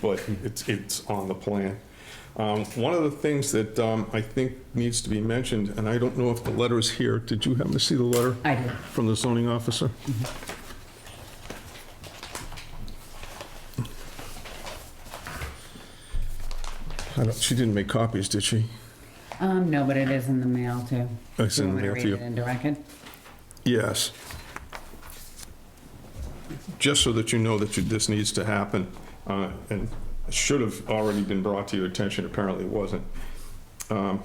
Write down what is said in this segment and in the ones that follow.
but it's, it's on the plan. Um, One of the things that um, I think needs to be mentioned, and I don't know if the letter is here, did you happen to see the letter? I did. From the zoning officer? I don't, she didn't make copies, did she? Um, no, but it is in the mail too. Oh, It's in the mail to Do you. you want me to read it into record? Yes. Just so that you know that you- this needs to happen, uh, and should have already been brought to your attention, apparently it wasn't. Um,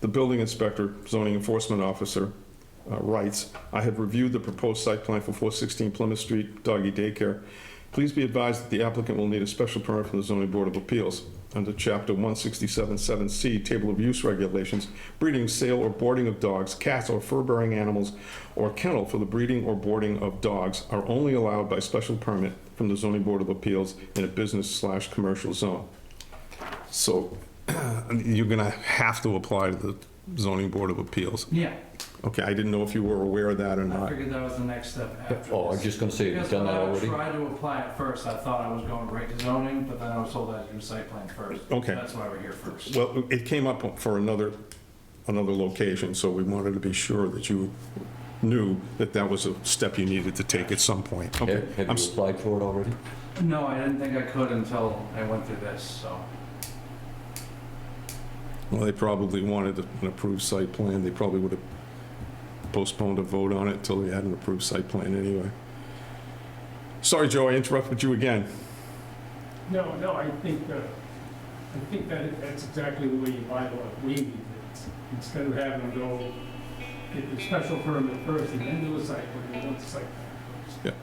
The building inspector, zoning enforcement officer, uh, writes, "I have reviewed the proposed site plan for 416 Plymouth Street Doggy Daycare. Please be advised that the applicant will need a special permit from the zoning board of appeals under Chapter 167-7C, Table of Use Regulations, breeding, sale, or boarding of dogs, cats, or fur-bearing animals, or kennel for the breeding or boarding of dogs are only allowed by special permit from the zoning board of appeals in a business slash commercial zone." So you're gonna have to apply to the zoning board of appeals. Yeah, Okay, I didn't know if you were aware of that or I not. figured that was the next step after Oh, I'm this. just gonna say, have Because you done when that I already? tried to apply it first, I thought I was going right to zoning, but then I was told I had to do site plan first. Okay. That's why we're here first. Well, it came up for another, another location, so we wanted to be sure that you knew that that was a step you needed to take at some point. Okay, Have have you I'm s- applied for it already? No, I didn't think I could until I went through this, so. Well, they probably wanted an approved site plan, they probably would have postponed a vote on it till they had an approved site plan anyway. Sorry, Joe, I interrupted you again. No, no, I think, uh, I think that, that's exactly the way you buy what we need. It's- Instead of having to go get the special permit first and then do a site plan, you want the site plan first.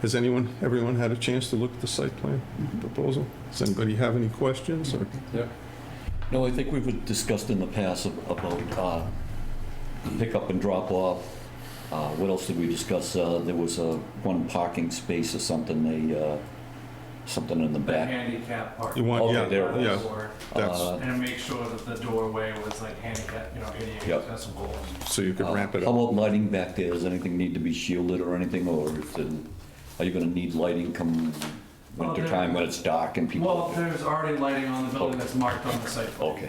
Has anyone, everyone had a chance to look at the site plan proposal? Does anybody have any questions or? No, I think we've discussed in the past ab- about uh, pickup and drop off. Uh, What else did we discuss? Uh, There was a one parking space or something, they, uh, something in the The back. handicap part. You want, Okay, yeah, Oh, there it yeah, Door, that's, Uh, And make sure that the doorway was like handicap, you know, ADA Yep. accessible. so you could uh, wrap it How up. about lighting back there? Does anything need to be shielded or anything, or if the- are you gonna need lighting come Well, winter there- time when it's dark and Well, people? there's already lighting on the building that's marked on the site. plan. Okay,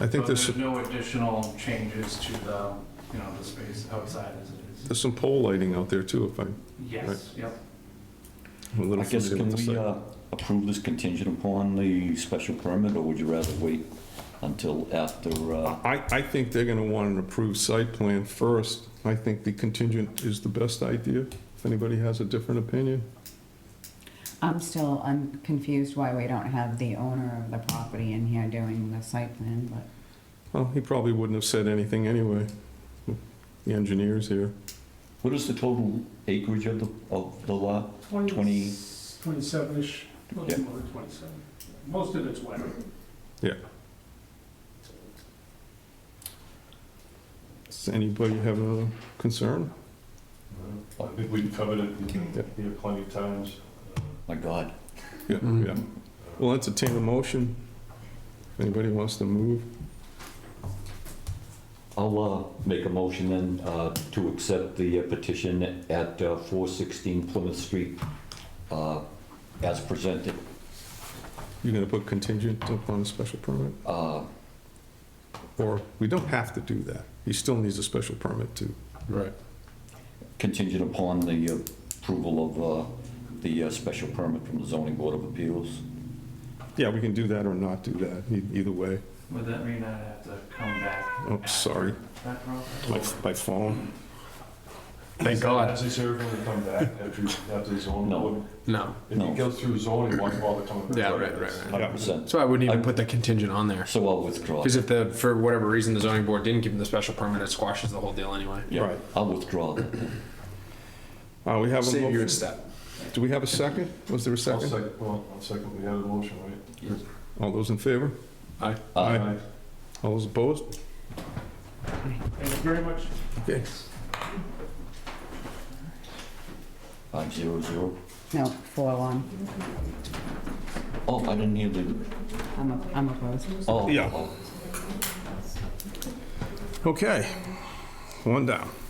I think So there's, there's no additional changes to the, you know, the space outside as it is. there's some pole lighting out there too, if I'm Yes, yep. a little I guess familiar can with the we site. uh, approve this contingent upon the special permit, or would you rather wait until after? uh, I, I think they're gonna want an approved site plan first. I think the contingent is the best idea, if anybody has a different opinion. I'm still, I'm confused why we don't have the owner of the property in here doing the site plan, but Well, he probably wouldn't have said anything anyway. The engineer's here. What is the total acreage of the, of the lot? 20. 27-ish, a Yeah. little more than 27. Most of it's wet. Yeah. Does anybody have another concern? I think we've covered it Yeah. here plenty of times. My God. Yeah, yeah. We'll entertain a motion. If anybody wants to move, I'll uh, make a motion then uh, to accept the uh, petition at uh, 416 Plymouth Street uh, as presented. you're gonna put contingent upon a special permit? Uh, Or, we don't have to do that. He still needs a special permit too. Right. Contingent upon the approval of uh, the uh, special permit from the zoning board of appeals. Yeah, we can do that or not do that, e- either way. Would that mean I'd have to come back? Oh, sorry, That process? my, my phone. Thank God. Does this ever gonna come back after, after the zoning? No. board? No, If No. it goes through zoning, why bother coming back? Yeah, right, right, right. 100%. so I wouldn't even put the contingent on there. So I'll withdraw. Because if the, for whatever reason, the zoning board didn't give him the special permit, it squashes the whole deal anyway. Yeah, Right. I'll withdraw that. then. Uh, we have a Save your motion. step. Do we have a second? Was there a I'll second? sec- well, I'll second, we had a motion, right? All those in favor? Uh, Aye. All those opposed? Thank you very much. Okay. Five zero zero. no, four one. Oh, I didn't hear the, I'm, op- I'm opposed. oh. Yeah. oh. Okay, one down.